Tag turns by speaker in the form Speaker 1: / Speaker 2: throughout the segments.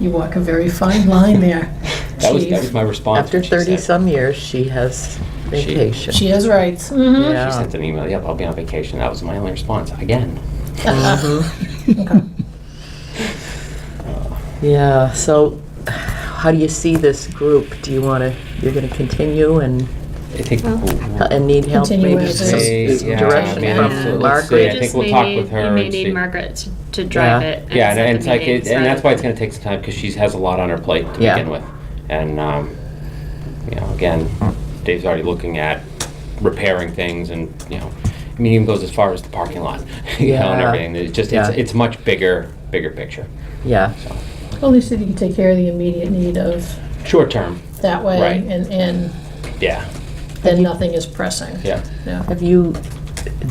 Speaker 1: You walk a very fine line there,
Speaker 2: That was, that
Speaker 1: Chief.
Speaker 2: was my response.
Speaker 3: After
Speaker 2: when she said-
Speaker 3: 30-some years, she has vacation.
Speaker 1: She has rights. Mhm.
Speaker 3: Yeah.
Speaker 2: She sent an email, yep, I'll be on vacation. That was my only response, again. Mm-hmm.
Speaker 3: Yeah, so how do you see this group? Do you want to, you're going to continue and,
Speaker 2: I think.
Speaker 4: Well,
Speaker 3: uh, and need help?
Speaker 1: Continue
Speaker 3: Maybe
Speaker 1: as
Speaker 3: some
Speaker 1: is.
Speaker 2: Hey, yeah,
Speaker 3: direction
Speaker 2: I mean,
Speaker 4: from
Speaker 2: let's- let's see.
Speaker 3: Margaret?
Speaker 2: I
Speaker 4: You
Speaker 2: think
Speaker 4: just
Speaker 2: we'll
Speaker 4: may
Speaker 2: talk
Speaker 4: need-
Speaker 2: with her
Speaker 4: You may
Speaker 2: and
Speaker 4: need
Speaker 2: see.
Speaker 4: Margaret to- to drive
Speaker 3: Yeah.
Speaker 4: it. and
Speaker 2: Yeah, and,
Speaker 4: set
Speaker 2: and
Speaker 4: the
Speaker 2: it's like, it-
Speaker 4: meetings
Speaker 2: and that's why
Speaker 4: rather
Speaker 2: it's gonna take some time, because she has a lot on her plate to
Speaker 3: Yeah.
Speaker 2: begin with. And, um, you know, again, Dave's already looking at repairing things and, you know, I mean, even goes as far as the parking lot, you know, and
Speaker 3: Yeah.
Speaker 2: everything. It's just, it's,
Speaker 3: Yeah.
Speaker 2: it's much bigger, bigger picture,
Speaker 3: Yeah,
Speaker 2: so.
Speaker 1: Well, at least if you can take care of the immediate need of
Speaker 2: Short term,
Speaker 1: that way,
Speaker 2: Right.
Speaker 1: and, and
Speaker 2: yeah,
Speaker 1: then nothing is pressing.
Speaker 2: yeah.
Speaker 1: Yeah.
Speaker 3: have you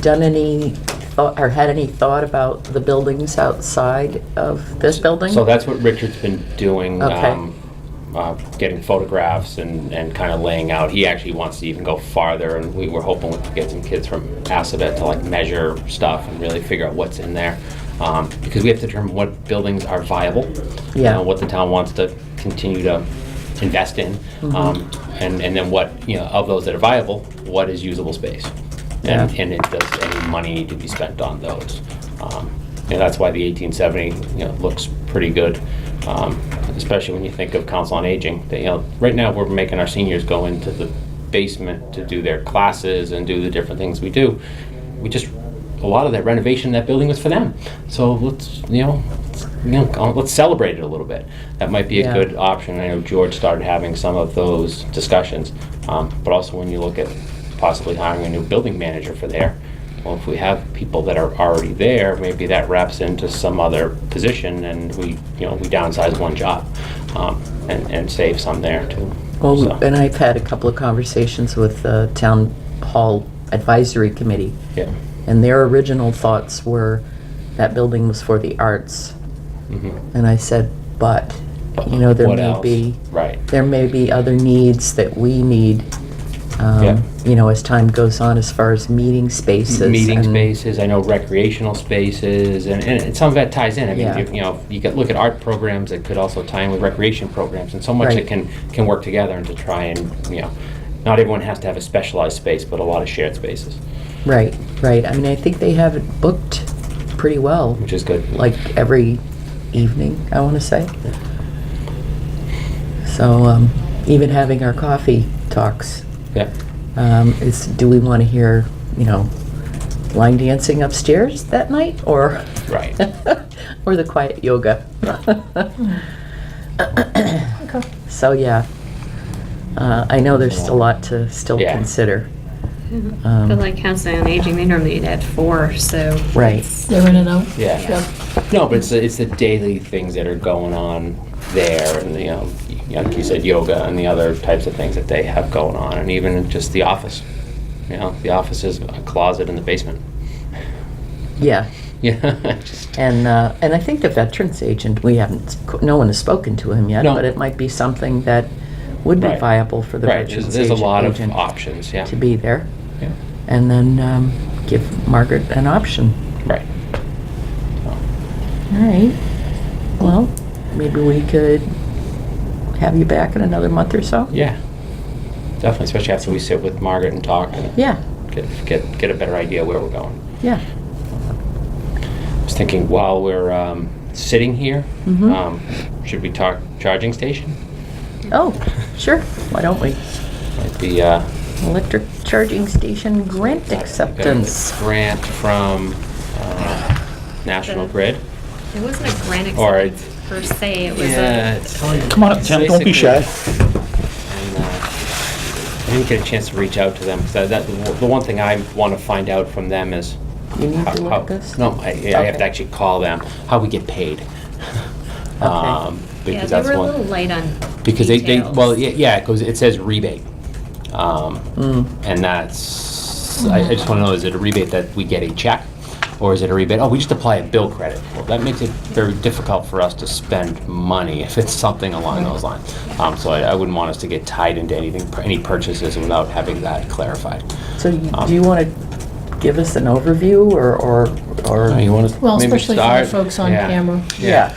Speaker 3: done any, thought- or had any thought about the buildings outside of this building?
Speaker 2: So that's what Richard's been doing,
Speaker 3: Okay.
Speaker 2: um, uh, getting photographs and, and kind of laying out. He actually wants to even go farther, and we were hoping to get some kids from Assabet to like measure stuff and really figure out what's in there. Um, because we have to determine what buildings are viable, you
Speaker 3: Yeah.
Speaker 2: know, what the town wants to continue to invest in,
Speaker 3: Mm-hmm.
Speaker 2: um, and, and then what, you know, of those that are viable, what is usable space? And,
Speaker 3: Yeah.
Speaker 2: and it does any money need to be spent on those? Um, And that's why the 1870, you know, looks pretty good, um, especially when you think of Council on Aging. That, you know, right now, we're making our seniors go into the basement to do their classes and do the different things we do. We just, a lot of that renovation, that building was for them. So let's, you know, let's, you know, go- let's celebrate it a little bit. That might be a
Speaker 3: Yeah.
Speaker 2: good option. I know George started having some of those discussions. Um, But also when you look at possibly hiring a new building manager for there, well, if we have people that are already there, maybe that wraps into some other position and we, you know, we downsize one job um, and, and save some there too.
Speaker 3: Well,
Speaker 2: So,
Speaker 3: and I've had a couple of conversations with the Town Hall Advisory Committee,
Speaker 2: Yeah.
Speaker 3: and their original thoughts were that building was for the arts.
Speaker 2: mhm.
Speaker 3: And I said, but, you know, there
Speaker 2: What
Speaker 3: may
Speaker 2: else?
Speaker 3: be,
Speaker 2: Right.
Speaker 3: there may be other needs that we need,
Speaker 2: Yeah.
Speaker 3: um, you know, as time goes on, as far as meeting spaces.
Speaker 2: meeting
Speaker 3: and-
Speaker 2: spaces, I know recreational spaces, and, and some of that ties in. I mean,
Speaker 3: Yeah.
Speaker 2: you you know, you could look at art programs that could also tie in with recreation programs, and so much
Speaker 3: Right.
Speaker 2: that can, can work together and to try and, you know, not everyone has to have a specialized space, but a lot of shared spaces,
Speaker 3: Right, right. I mean, I think they have it booked pretty well,
Speaker 2: which is good.
Speaker 3: like every evening, I want to say. So, um, even having our coffee talks,
Speaker 2: Yeah,
Speaker 3: um, is, do we want to hear, you know, line dancing upstairs that night, or?
Speaker 2: right.
Speaker 3: or the quiet yoga.
Speaker 1: Okay.
Speaker 3: So, yeah. Uh, I know there's a lot to still
Speaker 2: Yeah.
Speaker 3: consider.
Speaker 2: um,
Speaker 3: um,
Speaker 4: than- But like Council on Aging, they normally meet at four, so.
Speaker 3: Right.
Speaker 4: it's-
Speaker 1: They're in and out.
Speaker 2: Yeah.
Speaker 1: Yep.
Speaker 2: No, but it's the, it's the daily things that are going on there, and you know, y- like you said, yoga and the other types of things that they have going on, and even just the office. You know, the office is a closet in the basement.
Speaker 3: Yeah.
Speaker 2: Yeah, just
Speaker 3: And uh, and I think the veterans agent, we haven't, no one has spoken to him yet,
Speaker 2: No.
Speaker 3: but it might be something that would be
Speaker 2: Right.
Speaker 3: viable for the
Speaker 2: right. There's,
Speaker 3: veterans
Speaker 2: there's a
Speaker 3: agent,
Speaker 2: lot of
Speaker 3: agent
Speaker 2: options. Yeah.
Speaker 3: to be there,
Speaker 2: Yeah.
Speaker 3: and then um, give Margaret an option.
Speaker 2: Right.
Speaker 3: All right. Well, maybe we could have you back in another month or so.
Speaker 2: Yeah. Definitely, especially after we sit with Margaret and talk and
Speaker 3: Yeah.
Speaker 2: get get get a better idea where we're going.
Speaker 3: Yeah.
Speaker 2: I was thinking while we're um, sitting here,
Speaker 3: Mhm.
Speaker 2: um, should we talk charging station?
Speaker 3: Oh, sure. Why don't we?
Speaker 2: Might be uh,
Speaker 3: Electric charging station grant acceptance.
Speaker 2: a grant from uh, National Grid.
Speaker 4: It wasn't a grant
Speaker 2: Or
Speaker 4: acceptance per se, it was
Speaker 2: Yeah,
Speaker 4: a,
Speaker 2: it's-
Speaker 5: Come on up, Tim. Don't be shy.
Speaker 2: and, uh, I didn't get a chance to reach out to them, because that, the one thing I want to find out from them is.
Speaker 3: You need
Speaker 2: how-
Speaker 3: to look
Speaker 2: how-
Speaker 3: at this?
Speaker 2: No, I, I have
Speaker 3: Okay.
Speaker 2: to actually call them, how we get paid. Um,
Speaker 4: yeah,
Speaker 2: Because
Speaker 4: they
Speaker 2: that's
Speaker 4: were a
Speaker 2: one.
Speaker 4: little light on
Speaker 2: Because they, they, well,
Speaker 4: details.
Speaker 2: yeah, yeah, because it says rebate. Um,
Speaker 3: Mm.
Speaker 2: And that's, I I just want to know, is it a rebate that we get a check? Or is it a rebate, oh, we just apply a bill credit? Well, that makes it very difficult for us to spend money if it's something along those lines. Um, So I I wouldn't want us to get tied into anything, any purchases without having that clarified. Um,
Speaker 3: So y- do you want to give us an overview or, or, or?
Speaker 2: Oh, You want to
Speaker 1: Well,
Speaker 2: maybe
Speaker 1: especially for the
Speaker 2: start?
Speaker 1: folks on
Speaker 2: Yeah.
Speaker 1: camera.
Speaker 3: Yeah.